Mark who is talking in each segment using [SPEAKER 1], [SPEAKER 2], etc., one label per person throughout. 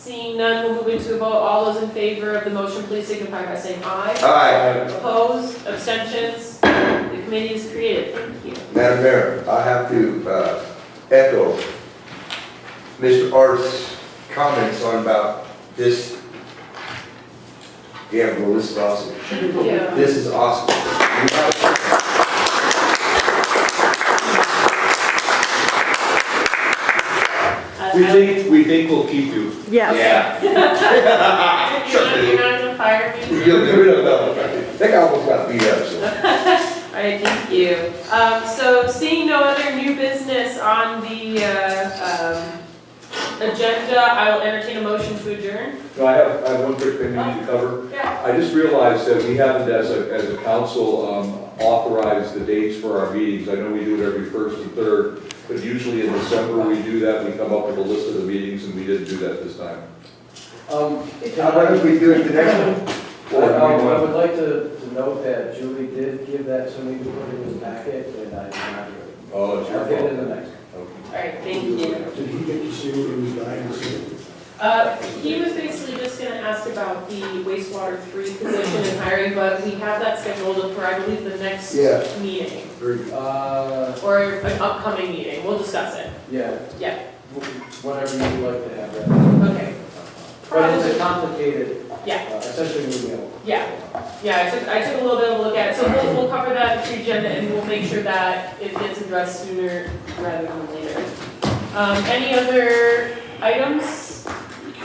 [SPEAKER 1] Seeing none, we'll move into a vote. All those in favor of the motion, please signify by saying aye.
[SPEAKER 2] Aye.
[SPEAKER 1] Opposed, abstentions, the committee is created. Thank you.
[SPEAKER 2] Madam Mayor, I have to uh, echo Mr. Art's comments on about this. Yeah, well, this is awesome.
[SPEAKER 1] Yeah.
[SPEAKER 2] This is awesome. You have-
[SPEAKER 1] I-
[SPEAKER 3] We
[SPEAKER 1] I-
[SPEAKER 3] think, we think we'll keep you.
[SPEAKER 4] Yes.
[SPEAKER 3] Ah,
[SPEAKER 1] You're not- you're not gonna fire me?
[SPEAKER 2] You'll get rid of that. That guy almost got beat up, so.
[SPEAKER 1] All right, thank you. Um, so seeing no other new business on the, uh, um, agenda, I will entertain a motion to adjourn.
[SPEAKER 3] No, I have, I have one quick thing we need to cover.
[SPEAKER 1] Yeah.
[SPEAKER 3] I just realized that we haven't, as a, as a council, um, authorized the dates for our meetings. I know we do it every first and third, but usually in December, we do that, we come up with a list of the meetings, and we didn't do that this time.
[SPEAKER 5] Um,
[SPEAKER 2] How about if we do it the next one?
[SPEAKER 5] I um, I would like to, to note that Julie did give that to me to put in the packet, and I did not do it.
[SPEAKER 3] Oh, it's your
[SPEAKER 5] I'll get it
[SPEAKER 3] fault.
[SPEAKER 5] in the next.
[SPEAKER 1] All right, thank you.
[SPEAKER 6] Did he get to see what he was dying to see?
[SPEAKER 1] Uh, he was basically just gonna ask about the wastewater three position and hiring, but we have that scheduled for, I believe, the next
[SPEAKER 2] Yeah.
[SPEAKER 1] meeting,
[SPEAKER 2] Very good.
[SPEAKER 5] Uh,
[SPEAKER 1] or an upcoming meeting, we'll discuss it.
[SPEAKER 5] yeah.
[SPEAKER 1] Yeah.
[SPEAKER 5] Wh- Whatever you'd like to have that.
[SPEAKER 1] Okay.
[SPEAKER 5] But it's
[SPEAKER 1] Probably,
[SPEAKER 5] a complicated, uh,
[SPEAKER 1] yeah,
[SPEAKER 5] essentially, email.
[SPEAKER 1] yeah, yeah, I took, I took a little bit of a look at it, so we'll, we'll cover that in the agenda, and we'll make sure that it gets addressed sooner rather than later. Um, any other items?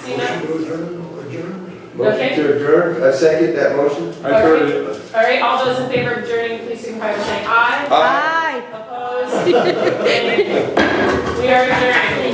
[SPEAKER 1] See that?
[SPEAKER 6] Motion to adjourn, adjourn?
[SPEAKER 2] Motion
[SPEAKER 1] Okay.
[SPEAKER 2] to adjourn, I second that motion.
[SPEAKER 1] I heard All right, all those in favor of adjourning, please signify by saying aye.
[SPEAKER 2] Aye.
[SPEAKER 4] Bye.
[SPEAKER 1] Opposed? We are adjourned.